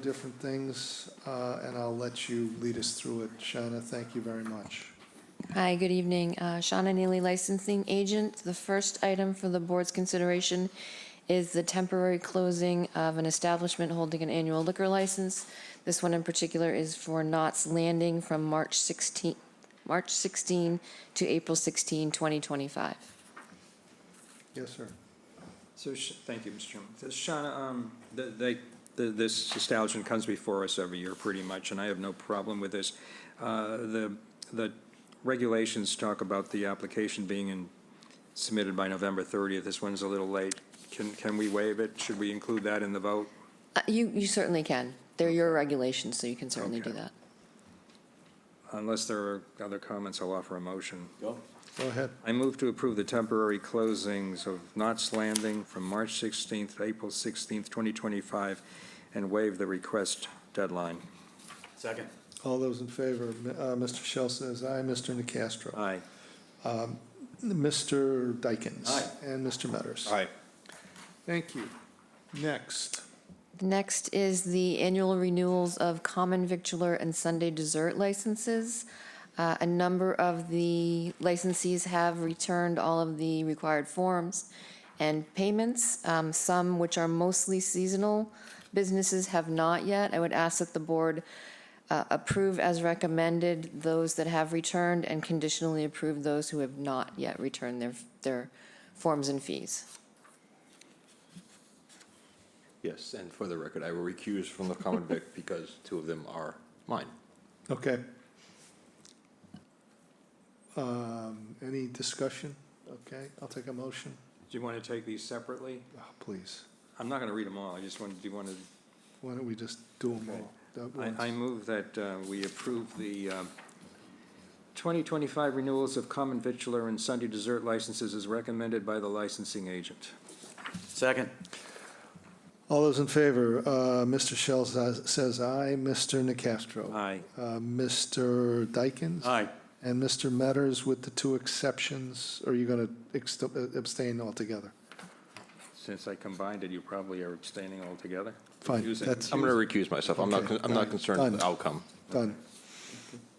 different things, uh, and I'll let you lead us through it. Shauna, thank you very much. Hi, good evening. Uh, Shauna Neely, licensing agent. The first item for the board's consideration is the temporary closing of an establishment holding an annual liquor license. This one in particular is for Knott's Landing from March 16, March 16 to April 16, 2025. Yes, sir. So, Sh- thank you, Mr. Chairman. So, Shauna, um, th- they, th- this establishment comes before us every year pretty much, and I have no problem with this. Uh, The, the regulations talk about the application being in- submitted by November 30th. This one's a little late. Can, can we waive it? Should we include that in the vote? Uh, You, you certainly can. They're your regulations, so you can certainly do Okay. that. Unless there are other comments, I'll offer a motion. Go ahead. I move to approve the temporary closings of Knott's Landing from March 16th to April 16th, 2025, and waive the request deadline. Second. All those in favor, M- uh, Mr. Shell says aye, Mr. Nacastro. Aye. Mr. Dykens. Aye. And Mr. Metters. Aye. Thank you. Next, Next is the annual renewals of common victular and Sunday dessert licenses. Uh, A number of the licensees have returned all of the required forms and payments. Um, Some, which are mostly seasonal businesses, have not yet. I would ask that the board uh, approve as recommended those that have returned and conditionally approve those who have not yet returned their, their forms and fees. Yes, and for the record, I will recuse from the common vic because two of them are mine. okay. Um, Any discussion? Okay, I'll take a motion, Do you want to take these separately? Oh, please. I'm I'm not going to read them all, I just wanted, do you want to, Why don't we just do them all? at once? I, I move that uh, we approve the um, 2025 renewals of common vitular and Sunday dessert licenses as recommended by the licensing agent. Second. All those in favor, uh, Mr. Shell says says aye, Mr. Nacastro. Aye. Uh, Mr. Dykens? Aye. And Mr. Metters with the two exceptions, or are you going to abstain altogether? Since I combined it, you probably are abstaining altogether? Fine, Confusing. that's- I'm going to recuse myself. I'm not, Okay, con- I'm not done, concerned with the done. outcome. Done.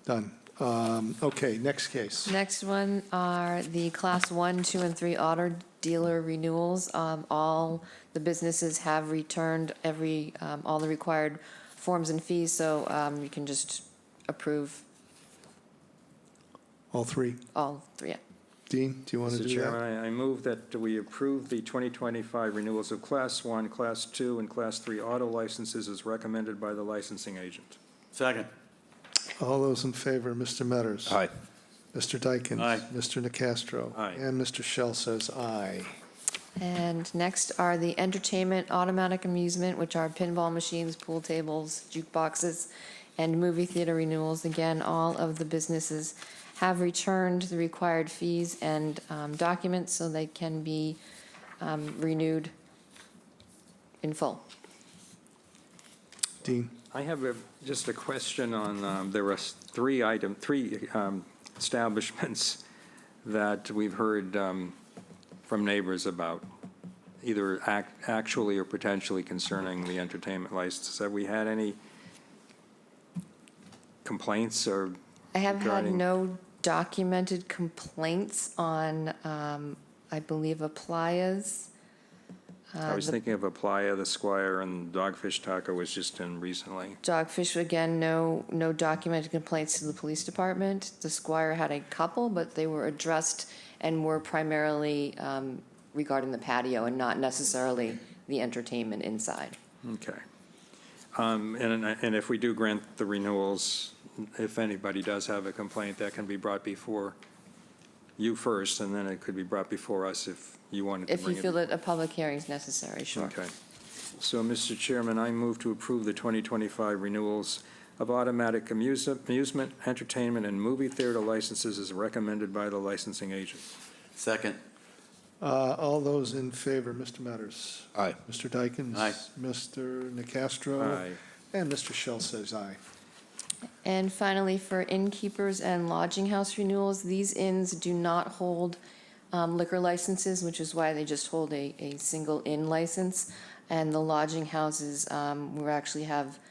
Done. Um, Okay, next case. Next one are the Class 1, 2, and 3 auto dealer renewals. Um, All the businesses have returned every, um, all the required forms and fees, so um, you can just approve All three. all three. yeah. Dean, do you want to Mr. do Chairman, that? I I move that we approve the 2025 renewals of Class 1, Class 2, and Class 3 auto licenses as recommended by the licensing agent. Second. All those in favor, Mr. Metters? Aye. Mr. Dykens? Aye. Mr. Nacastro? Aye. And Mr. Shell says aye. And next are the entertainment, automatic amusement, which are pinball machines, pool tables, jukeboxes, and movie theater renewals. Again, all of the businesses have returned the required fees and um, documents, so they can be um, renewed in full. Dean? I have a- just a question on, um, there are three item, three um, establishments that we've heard um, from neighbors about, either ac- actually or potentially concerning the entertainment licenses. Have we had any complaints or, I have had regarding- no documented complaints on, um, I believe, a Playa's. Uh, I was thinking of Applya, the Squire, and Dogfish Taco was just in recently. Dogfish, again, no, no documented complaints to the police department. The Squire had a couple, but they were addressed and were primarily um, regarding the patio and not necessarily the entertainment inside. Okay. Um, And and if we do grant the renewals, if anybody does have a complaint, that can be brought before you first, and then it could be brought before us if you wanted to If you bring it. feel that a public hearing is necessary, sure. Okay. So, Mr. Chairman, I move to approve the 2025 renewals of automatic amuse- amusement, entertainment, and movie theater licenses as recommended by the licensing agent. Second. Uh, All those in favor, Mr. Metters? Aye. Mr. Dykens? Aye. Mr. Nacastro? Aye. And Mr. Shell says aye. And finally, for innkeepers and lodging house renewals, these inns do not hold um, liquor licenses, which is why they just hold a, a single inn license. And the lodging houses, um, we actually have